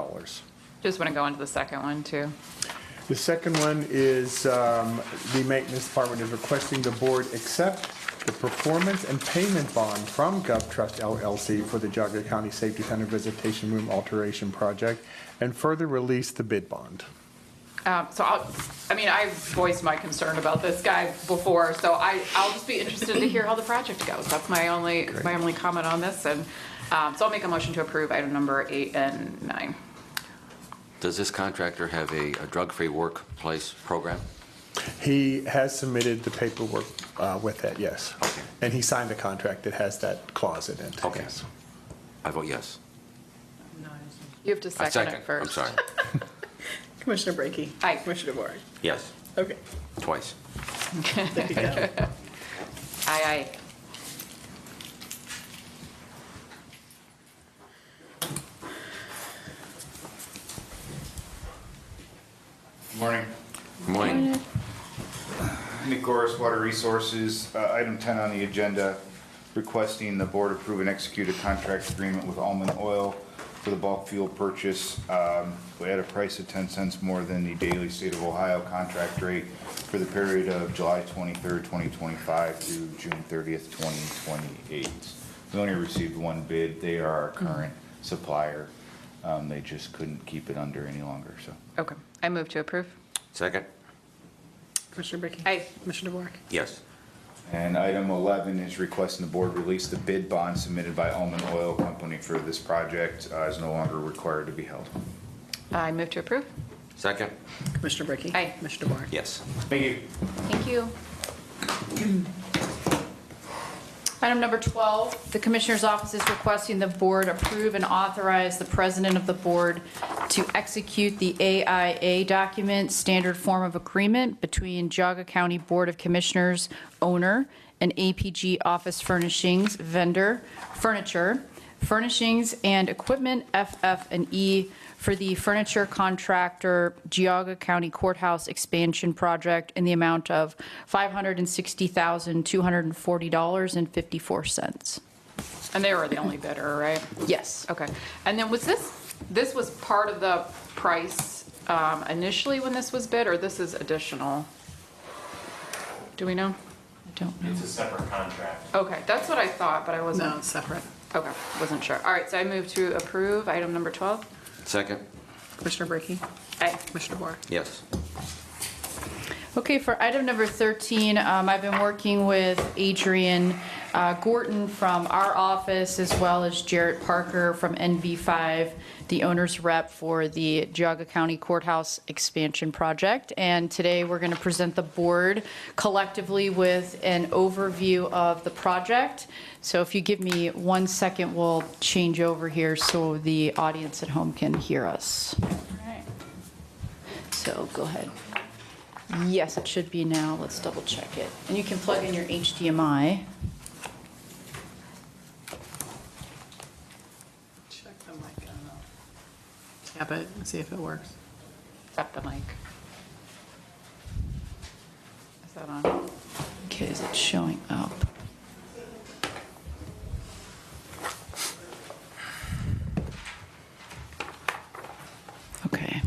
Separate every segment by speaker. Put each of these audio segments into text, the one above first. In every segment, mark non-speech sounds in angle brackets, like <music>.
Speaker 1: dollars.
Speaker 2: Just want to go into the second one, too.
Speaker 1: The second one is, um, the maintenance department is requesting the board accept the performance and payment bond from GovTrust LLC for the Geauga County Safety Center Visitation Room Alteration Project, and further release the bid bond.
Speaker 2: Um, So I'll, I mean, I voiced my concern about this guy before, so I, I'll just be interested to hear how the project goes. That's my only, my only comment on this, and, um, so I'll make a motion to approve item number eight and nine.
Speaker 3: Does this contractor have a a drug-free workplace program?
Speaker 1: He has submitted the paperwork uh, with that, yes.
Speaker 3: Okay.
Speaker 1: And he signed a contract that has that clause in it.
Speaker 3: Okay.
Speaker 1: yes.
Speaker 3: I vote yes.
Speaker 2: You have to
Speaker 3: I
Speaker 2: second it
Speaker 3: I'm
Speaker 2: first.
Speaker 3: sorry. <laughs>
Speaker 4: Commissioner Brackey.
Speaker 2: Aye.
Speaker 4: Commissioner DeVore.
Speaker 3: Yes,
Speaker 4: Okay,
Speaker 3: twice.
Speaker 4: there you go.
Speaker 2: Aye, aye.
Speaker 5: Morning.
Speaker 3: Good Morning.
Speaker 5: Nicoris Water Resources, uh, item 10 on the agenda, requesting the board approve and execute a contract agreement with Almond Oil for the bulk fuel purchase um, at a price of 10 cents more than the daily state of Ohio contract rate for the period of July 23rd, 2025 through June 30th, 2028. We only received one bid. They are our current supplier. Um, They just couldn't keep it under any longer, so.
Speaker 2: Okay, I move to approve.
Speaker 3: Second?
Speaker 4: Commissioner Brackey.
Speaker 2: Aye.
Speaker 4: Commissioner DeVore.
Speaker 3: Yes.
Speaker 5: And item 11 is requesting the board release the bid bond submitted by Almond Oil Company for this project uh, is no longer required to be held.
Speaker 2: I move to approve.
Speaker 3: Second?
Speaker 4: Commissioner Brackey.
Speaker 2: Aye.
Speaker 4: Commissioner DeVore.
Speaker 3: Yes.
Speaker 5: Thank you.
Speaker 2: Thank you. Item number 12,
Speaker 6: The Commissioner's Office is requesting the Board approve and authorize the President of the Board to execute the AIA document, Standard Form of Agreement, between Geauga County Board of Commissioners owner and APG Office Furnishings vendor, furniture, furnishings and equipment, FF and E, for the furniture contractor Geauga County Courthouse Expansion Project in the amount of $560,240.54.
Speaker 2: and they were the only bidder, right?
Speaker 6: Yes.
Speaker 2: Okay. And then was this, this was part of the price um, initially when this was bid, or this is additional? Do we know?
Speaker 6: I don't know.
Speaker 7: It's a separate contract.
Speaker 2: Okay, that's what I thought, but I
Speaker 4: No,
Speaker 2: wasn't,
Speaker 4: it's separate.
Speaker 2: okay, wasn't sure. All right, so I move to approve item number 12.
Speaker 3: Second?
Speaker 4: Commissioner Brackey.
Speaker 2: Aye.
Speaker 4: Commissioner DeVore.
Speaker 3: Yes.
Speaker 6: Okay, for item number 13, um, I've been working with Adrian uh, Gorton from our office, as well as Jarrett Parker from NV5, the owner's rep for the Geauga County Courthouse Expansion Project. And today, we're going to present the board collectively with an overview of the project. So if you give me one second, we'll change over here so the audience at home can hear us. So go ahead. Yes, it should be now. Let's double check it. And you can plug in your HDMI.
Speaker 4: Check the mic on. Tap it, and see if it works.
Speaker 2: Tap the mic. Is that on?
Speaker 6: Okay, is it showing up? Okay.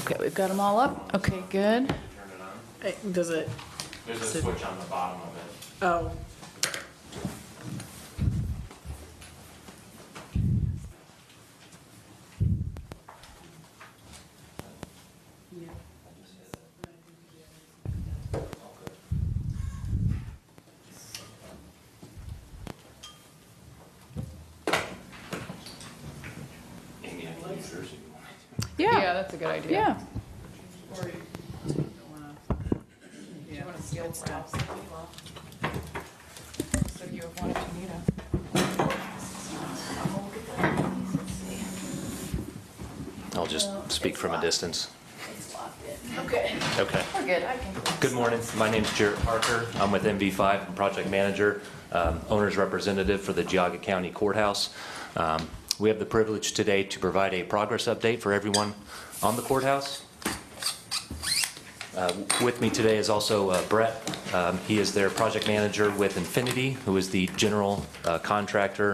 Speaker 6: Okay, we've got them all up. Okay,
Speaker 7: Turn
Speaker 6: good.
Speaker 7: it on.
Speaker 4: Hey, Does it,
Speaker 7: There's a
Speaker 4: So-
Speaker 7: switch on the bottom of it.
Speaker 4: oh,
Speaker 7: Amy, I can use yours if you want.
Speaker 2: Yeah, that's a good idea.
Speaker 6: Yeah.
Speaker 2: Do you want to steal Ralph's? So you have one if you need 'em.
Speaker 8: I'll just speak from a distance.
Speaker 6: Okay,
Speaker 8: Okay.
Speaker 6: we're good. I can.
Speaker 8: Good morning. My name's Jarrett Parker. I'm with MV5, I'm project manager, um, owner's representative for the Geauga County Courthouse. Um, We have the privilege today to provide a progress update for everyone on the courthouse. Um, Uh, With me today is also uh, Brett. Um, He is their project manager with Infinity, who is the general uh, contractor